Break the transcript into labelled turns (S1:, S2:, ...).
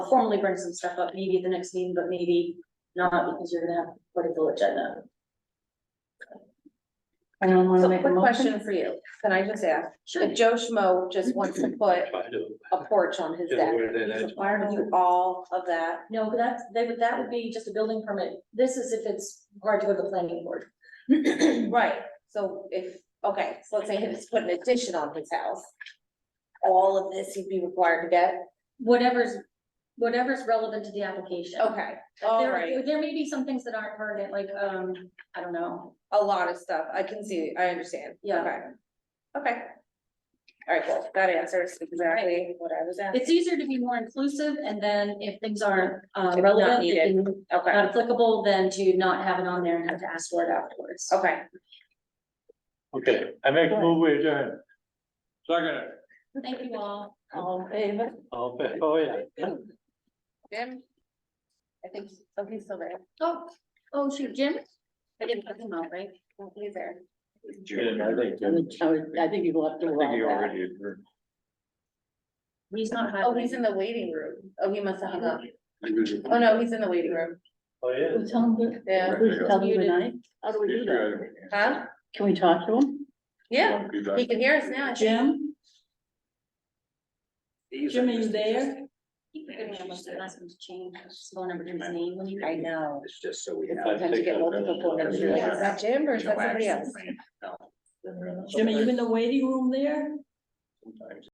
S1: formally bring some stuff up, maybe at the next meeting, but maybe not, because you're gonna have quite a full agenda.
S2: Anyone wanna
S3: So
S2: make a
S3: quick
S2: motion?
S3: question for you, can I just ask,
S1: Sure.
S3: if Joe Schmo just wants to put
S4: Try to-
S3: a porch on his
S4: Yeah,
S3: deck,
S4: where that
S3: he's
S4: is.
S3: required to do all of that?
S1: No, but that's, they would, that would be just a building permit. This is if it's hard to go to the planning board.
S3: Right, so if, okay, so let's say he was putting an addition on his house. All of this he'd be required to get,
S1: Whatever's, whatever's relevant to the application.
S3: okay, all
S1: There,
S3: right,
S1: there may be some things that aren't pertinent, like, um, I don't know,
S3: a lot of stuff, I can see, I understand,
S1: Yeah.
S3: okay. Okay. All right, well, that answers exactly what I was asking,
S1: It's easier to be more inclusive, and then if things aren't uh,
S3: If not
S1: relevant,
S3: needed.
S1: if
S3: okay,
S1: not applicable, then to not have it on there and have to ask for it afterwards.
S3: okay.
S4: Okay, I make a move we adjourn. Second.
S1: Thank you all.
S2: All in favor?
S4: Oh, but- oh, yeah.
S3: Jim? I think, oh, he's still there,
S1: Oh, oh, shoot, Jim? I didn't put him out, right?
S3: he's there.
S4: Yeah, I think-
S2: I would- I would- I think you've left.
S4: I think you already adjourned.
S1: He's not.
S3: Oh, he's in the waiting room. Oh, he must have hung up. Oh, no, he's in the waiting room.
S4: Oh, yeah.
S2: We tell them, good-
S3: Yeah,
S2: we tell them good night? How do we do that?
S3: huh?
S2: Can we talk to them?
S3: Yeah, he can hear us now.
S2: Jim? Jim, are you there?
S1: Keep forgetting I must have asked him to change his phone number to his name when he.
S3: I know.
S5: It's just so we
S4: It's
S5: have.
S4: like-
S3: Sometimes you get multiple phone numbers. You're like, Is that Jim or is
S5: no
S3: that somebody
S5: action
S3: else?
S5: plan. No.
S2: Jim, are you in the waiting room there?
S5: Sometimes.